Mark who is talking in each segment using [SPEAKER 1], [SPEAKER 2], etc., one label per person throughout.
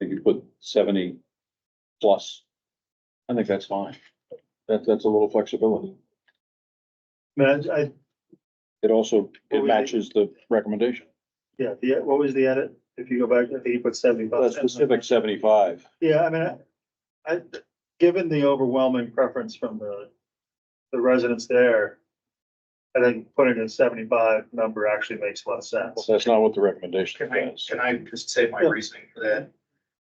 [SPEAKER 1] They could put seventy plus. I think that's fine. That, that's a little flexibility.
[SPEAKER 2] Man, I,
[SPEAKER 1] It also,
[SPEAKER 2] Well,
[SPEAKER 1] it
[SPEAKER 2] we-
[SPEAKER 1] matches the recommendation.
[SPEAKER 2] yeah, the, what was the edit? If you go back, I think you put
[SPEAKER 1] That
[SPEAKER 2] seventy-five.
[SPEAKER 1] specific seventy-five.
[SPEAKER 2] Yeah, I mean, I- I, given the overwhelming preference from the, the residents there, I think putting a seventy-five number actually makes a lot of sense.
[SPEAKER 1] That's not what the recommendation
[SPEAKER 3] Can I,
[SPEAKER 1] is.
[SPEAKER 3] can I just say my
[SPEAKER 2] Yeah.
[SPEAKER 3] reasoning for that?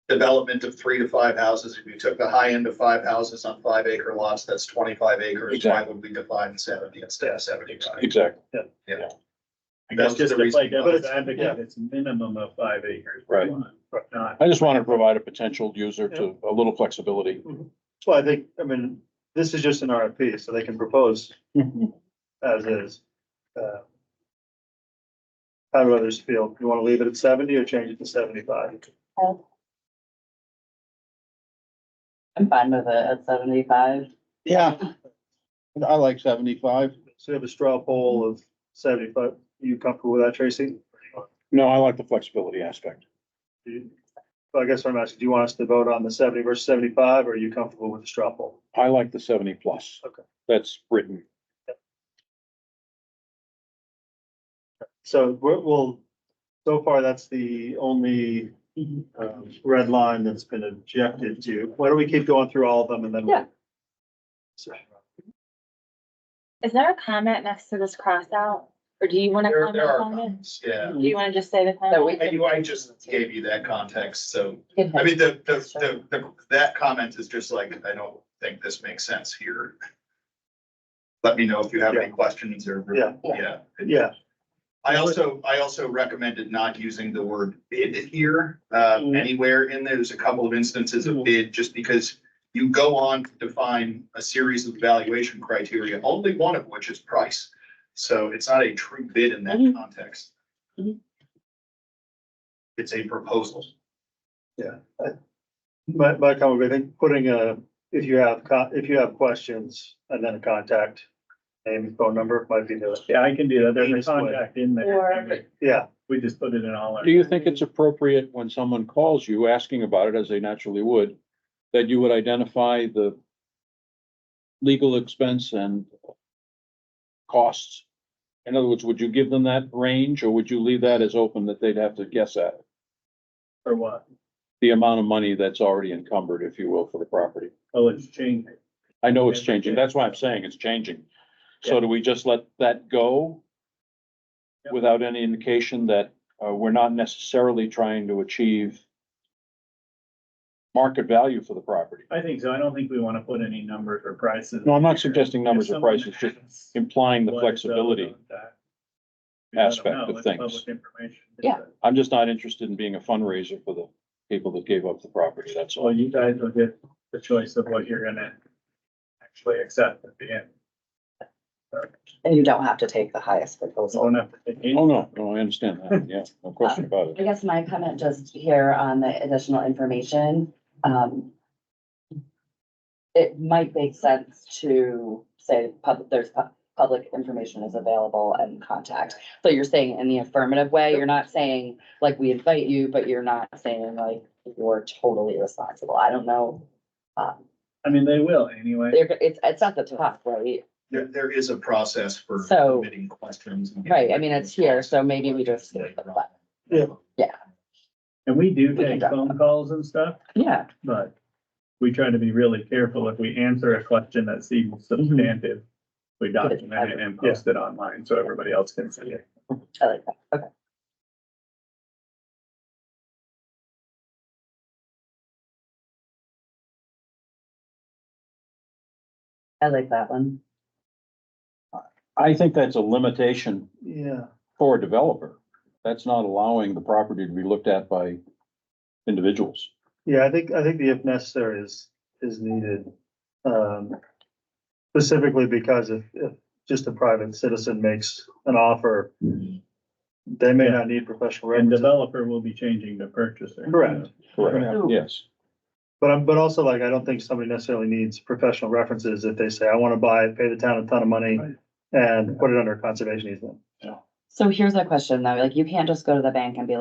[SPEAKER 3] Development of three to five houses, if you took the high end of five houses on five acre lots, that's twenty-five acres, why
[SPEAKER 1] Exactly.
[SPEAKER 3] would we define seventy instead of seventy-five?
[SPEAKER 1] Exactly,
[SPEAKER 3] That's just the reason.
[SPEAKER 2] But it's- yeah.
[SPEAKER 4] it's minimum of five acres.
[SPEAKER 1] right.
[SPEAKER 4] But not.
[SPEAKER 1] I just wanted to provide a potential user to a little flexibility.
[SPEAKER 2] Well, I think, I mean, this is just an RFP, so they can propose as is. Uh, How do others feel? You wanna leave it at seventy or change it to seventy-five?
[SPEAKER 5] I'm fine with it at seventy-five.
[SPEAKER 1] Yeah. I like seventy-five.
[SPEAKER 2] So you have a straw poll of seventy-five. You comfortable with that, Tracy?
[SPEAKER 1] No, I like the flexibility aspect.
[SPEAKER 2] Do you- Well, I guess what I'm asking, do you want us to vote on the seventy versus seventy-five, or are you comfortable with the straw poll?
[SPEAKER 1] I like the seventy plus.
[SPEAKER 2] Okay.
[SPEAKER 1] That's written.
[SPEAKER 2] So we're, we'll, so far, that's the only, um, red line that's been objected to. Why don't we keep going through all of them and then? we'll-
[SPEAKER 6] Yeah. Is there a comment next to this crossout? Or do you want to
[SPEAKER 3] There,
[SPEAKER 6] comment
[SPEAKER 3] there are
[SPEAKER 6] on it?
[SPEAKER 3] comments, yeah.
[SPEAKER 6] Do you want to just say the
[SPEAKER 5] So we
[SPEAKER 6] comment?
[SPEAKER 3] I, I just gave you that context, so, I mean, the, the, the, the- that comment is just like, I don't think this makes sense here. Let me know if you have any questions or.
[SPEAKER 2] Yeah.
[SPEAKER 3] Yeah.
[SPEAKER 2] Yeah,
[SPEAKER 3] I also, I also recommended not using the word bid here, uh,
[SPEAKER 5] Mm-hmm.
[SPEAKER 2] Mhm.
[SPEAKER 3] anywhere in there. There's a couple of instances of
[SPEAKER 2] Mhm.
[SPEAKER 3] bid, just because you go on to define a series of valuation criteria, only one of which is price. So it's not a true bid in that
[SPEAKER 5] Mm-hmm.
[SPEAKER 6] Mhm.
[SPEAKER 3] context.
[SPEAKER 6] Mhm.
[SPEAKER 3] It's a proposal.
[SPEAKER 2] my, my comment, would be, I think, putting a, if you have, co- if you have questions, and then a contact, name, phone number might be the,
[SPEAKER 4] Yeah, I can do that.
[SPEAKER 2] There's
[SPEAKER 4] There's
[SPEAKER 2] a
[SPEAKER 4] a contact in
[SPEAKER 6] Or-
[SPEAKER 4] there.
[SPEAKER 2] yeah,
[SPEAKER 4] We just put it in all our.
[SPEAKER 1] Do you think it's appropriate when someone calls you asking about it, as they naturally would, that you would identify the legal expense and costs? In other words, would you give them that range or would you leave that as open that they'd have to guess at?
[SPEAKER 4] For what?
[SPEAKER 1] The amount of money that's already encumbered, if you will, for the property.
[SPEAKER 4] Oh, it's changing.
[SPEAKER 1] I know it's changing. That's why I'm saying it's changing. So do we just let that go?
[SPEAKER 4] Yep.
[SPEAKER 1] Without any indication that, uh, we're not necessarily trying to achieve market value for the property?
[SPEAKER 4] I think so. I don't think we want to put any numbers or prices.
[SPEAKER 1] No, I'm not
[SPEAKER 4] here.
[SPEAKER 1] suggesting numbers
[SPEAKER 4] If
[SPEAKER 1] or prices,
[SPEAKER 4] someone
[SPEAKER 1] just
[SPEAKER 4] asks
[SPEAKER 1] implying the
[SPEAKER 4] what is
[SPEAKER 1] flexibility.
[SPEAKER 4] owed on that, we let them
[SPEAKER 1] aspect
[SPEAKER 4] know.
[SPEAKER 1] of
[SPEAKER 4] It's
[SPEAKER 1] things.
[SPEAKER 4] public information.
[SPEAKER 5] Yeah.
[SPEAKER 1] I'm just not interested in being a fundraiser for the people that gave up the property, that's
[SPEAKER 4] So
[SPEAKER 1] all.
[SPEAKER 4] Oh, you guys will get the choice of what you're gonna actually accept at the end.
[SPEAKER 5] And you don't have to take the highest
[SPEAKER 4] So
[SPEAKER 5] proposal.
[SPEAKER 4] you don't have to take any-
[SPEAKER 1] Oh, no, no, I understand that, yeah, no question about
[SPEAKER 5] I
[SPEAKER 1] it.
[SPEAKER 5] guess my comment just here on the additional information, um. It might make sense to say public, there's pu- public information is available and contact. So you're saying in the affirmative way, you're not saying like we invite you, but you're not saying like you're totally responsible. I don't know. Um,
[SPEAKER 4] I mean, they will anyway.
[SPEAKER 5] they're, it's, it's at the top, right?
[SPEAKER 3] There, there is a process for
[SPEAKER 5] So-
[SPEAKER 3] submitting questions. and-
[SPEAKER 5] Right, I mean, it's here, so maybe we just-
[SPEAKER 2] Yeah.
[SPEAKER 4] And we do
[SPEAKER 5] We can
[SPEAKER 4] take
[SPEAKER 5] drop
[SPEAKER 4] phone calls and stuff,
[SPEAKER 5] Yeah,
[SPEAKER 4] but we try to be really careful if we answer a question that seems substantive. We document Mhm. it and post it online so everybody else can see it.
[SPEAKER 5] I like that. Okay. I like that one.
[SPEAKER 1] I think that's a limitation
[SPEAKER 2] yeah.
[SPEAKER 1] for a developer. That's not allowing the property to be looked at by individuals.
[SPEAKER 2] Yeah, I think, I think the if necessary is, is needed. Um, specifically because if, if just a private citizen makes an offer, they may not need professional
[SPEAKER 4] And
[SPEAKER 2] representation.
[SPEAKER 4] developer will be changing the purchaser.
[SPEAKER 2] Correct.
[SPEAKER 1] Correct. Yes.
[SPEAKER 2] But I'm, but also like, I don't think somebody necessarily needs professional references if they say, I want to buy it, pay the town a ton of money
[SPEAKER 4] Right.
[SPEAKER 2] and put it under a conservation easement.
[SPEAKER 5] So here's a question though, like you can't just go to the bank and be like.